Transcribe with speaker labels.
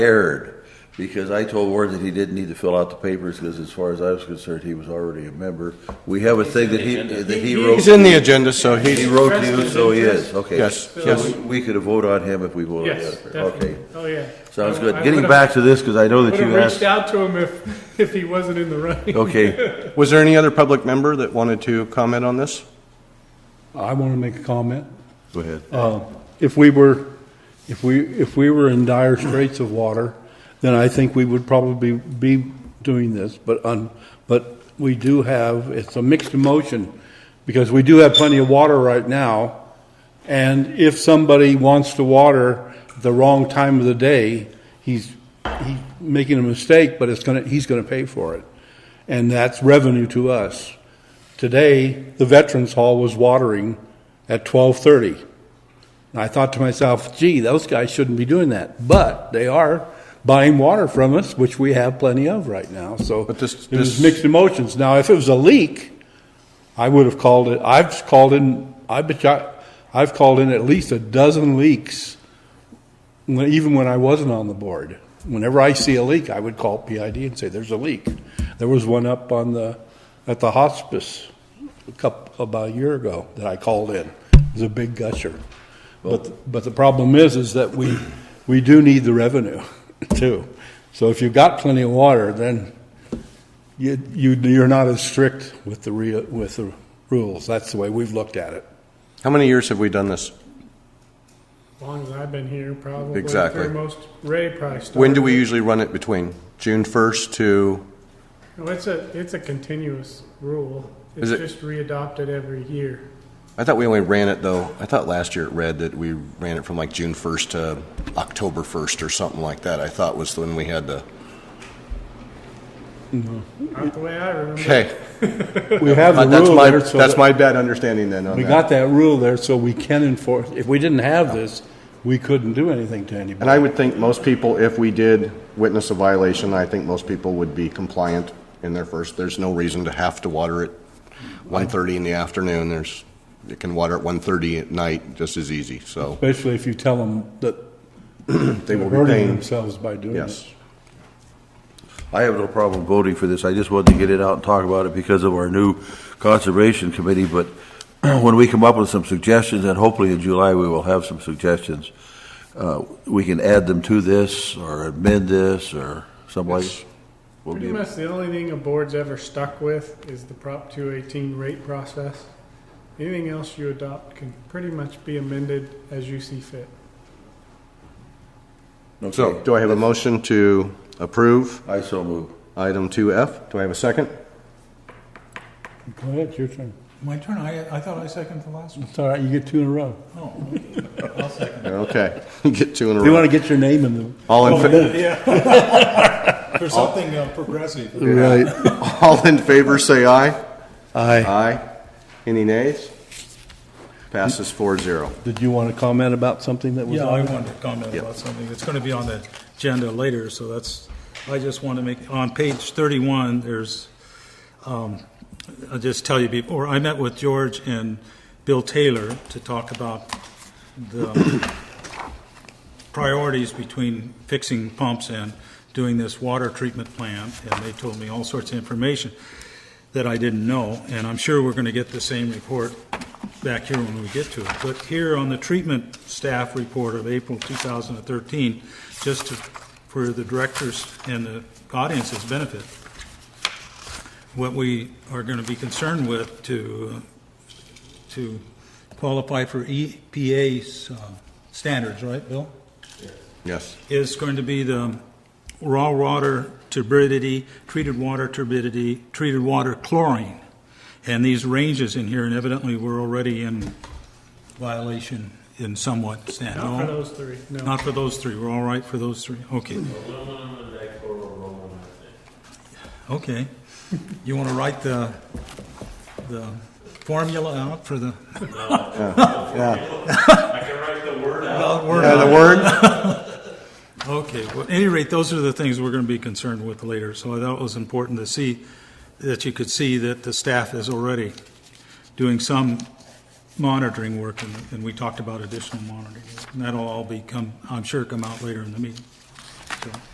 Speaker 1: erred, because I told Ward that he didn't need to fill out the papers, because as far as I was concerned, he was already a member. We have a thing that he, that he wrote.
Speaker 2: He's in the agenda, so
Speaker 1: He
Speaker 2: he,
Speaker 1: wrote to you, so he is, okay.
Speaker 2: Yes,
Speaker 1: So
Speaker 2: yes.
Speaker 1: we- We could have voted on him if we voted on the
Speaker 3: Yes,
Speaker 1: other.
Speaker 3: definitely.
Speaker 1: Okay,
Speaker 3: Oh, yeah.
Speaker 1: sounds
Speaker 3: I-
Speaker 1: good.
Speaker 3: I
Speaker 1: Getting
Speaker 3: would've-
Speaker 1: back to this, because I know that
Speaker 3: Would've
Speaker 1: you
Speaker 3: reached
Speaker 1: asked,
Speaker 3: out to him if, if he wasn't in the running.
Speaker 1: okay,
Speaker 2: was there any other public member that wanted to comment on this?
Speaker 4: I want to make a comment. Uh,
Speaker 1: go ahead.
Speaker 4: If we were, if we, if we were in dire straits of water, then I think we would probably be doing this, but, un but we do have, it's a mixed emotion, because we do have plenty of water right now, and if somebody wants to water the wrong time of the day, he's, he's making a mistake, but it's gonna, he's gonna pay for it. And that's revenue to us. Today, the Veterans Hall was watering at twelve-thirty. And I thought to myself, gee, those guys shouldn't be doing that. But they are buying water from us, which we have plenty of right now. So
Speaker 2: But this-
Speaker 4: it was
Speaker 2: this-
Speaker 4: mixed emotions. Now, if it was a leak, I would have called it, I've called in, I bet you, I've called in at least a dozen leaks, when- even when I wasn't on the board. Whenever I see a leak, I would call PID and say, there's a leak. There was one up on the, at the hospice a couple, about a year ago that I called in. It was a big gusher. But, but the problem is, is that we, we do need the revenue too. So if you've got plenty of water, then you, you, you're not as strict with the rea, with the rules. That's the way we've looked at it.
Speaker 2: How many years have we done this?
Speaker 3: As long as I've been here, probably.
Speaker 2: Exactly.
Speaker 3: for Most, Ray probably started.
Speaker 2: When do we usually run it between? June 1st to,
Speaker 3: No, it's a, it's a continuous rule. It's
Speaker 2: Is it-
Speaker 3: just readopted every year.
Speaker 2: I thought we only ran it though, I thought last year it read that we ran it from like June 1st to October 1st or something like that, I thought was when we had the,
Speaker 3: Not the way I remember.
Speaker 2: okay.
Speaker 4: We have the
Speaker 2: Uh, That's
Speaker 4: rule
Speaker 2: my,
Speaker 4: there. so
Speaker 2: that's
Speaker 4: that-
Speaker 2: my bad understanding then on
Speaker 4: We
Speaker 2: that.
Speaker 4: got that rule there so we can enforce, if we didn't have this, we couldn't do anything to
Speaker 2: And
Speaker 4: anybody.
Speaker 2: I would think most people, if we did witness a violation, I think most people would be compliant in their first, there's no reason to have to water it 1:30 in the afternoon, there's, you can water it 1:30 at night just as easy, so
Speaker 4: Especially if you tell them that
Speaker 2: they
Speaker 4: they're
Speaker 2: will be
Speaker 4: hurting
Speaker 2: paying.
Speaker 4: themselves by doing
Speaker 2: Yes.
Speaker 4: this.
Speaker 1: I have no problem voting for this. I just wanted to get it out and talk about it because of our new conservation committee. But when we come up with some suggestions, and hopefully in July we will have some suggestions, uh, we can add them to this or amend this or someplace. We'll
Speaker 3: Pretty
Speaker 1: be-
Speaker 3: much the only thing a board's ever stuck with is the Prop 218 rate process. Anything else you adopt can pretty much be amended as you see fit.
Speaker 2: So,
Speaker 1: Okay.
Speaker 2: do I have a motion to approve
Speaker 1: I so move.
Speaker 2: item 2F? Do I have a second?
Speaker 4: Go ahead, your turn.
Speaker 5: My turn, I, I thought I seconded the last one.
Speaker 4: It's all right, you get two in a row.
Speaker 5: Oh, okay. I'll second.
Speaker 2: Okay, you get two in a
Speaker 4: If you
Speaker 2: row.
Speaker 4: want to get your name in the
Speaker 2: All in, fa-
Speaker 5: Yeah. For something uh, progressive.
Speaker 2: Right. all in favor, say aye.
Speaker 4: Aye.
Speaker 2: Aye. Any nays? Passes 4-0.
Speaker 4: Did you want to comment about something that was
Speaker 5: Yeah, I
Speaker 4: on?
Speaker 5: wanted to comment
Speaker 2: Yeah.
Speaker 5: about something. It's going to be on the agenda later, so that's, I just want to make, on page 31, there's, um, I'll just tell you before, I met with George and Bill Taylor to talk about the priorities between fixing pumps and doing this water treatment plan, and they told me all sorts of information that I didn't know, and I'm sure we're going to get the same report back here when we get to it. But here on the treatment staff report of April 2013, just to, for the directors and the audience's benefit, what we are going to be concerned with to, uh, to qualify for EPA's uh, standards, right, Bill?
Speaker 2: Yes.
Speaker 5: is going to be the raw water turbidity, treated water turbidity, treated water chlorine. And these ranges in here, and evidently we're already in violation in somewhat stand.
Speaker 3: Not for
Speaker 5: no?
Speaker 3: those three, no.
Speaker 5: Not for those three, we're all right for those three, okay. Okay, you want to write the, the formula out for the?
Speaker 6: I can write the word out.
Speaker 5: Well, we're
Speaker 2: Yeah,
Speaker 5: not-
Speaker 2: the word?
Speaker 5: Okay, well, at any rate, those are the things we're going to be concerned with later, so I thought it was important to see, that you could see that the staff is already doing some monitoring work, and, and we talked about additional monitoring, and that'll all become, I'm sure, come out later in the meeting. So-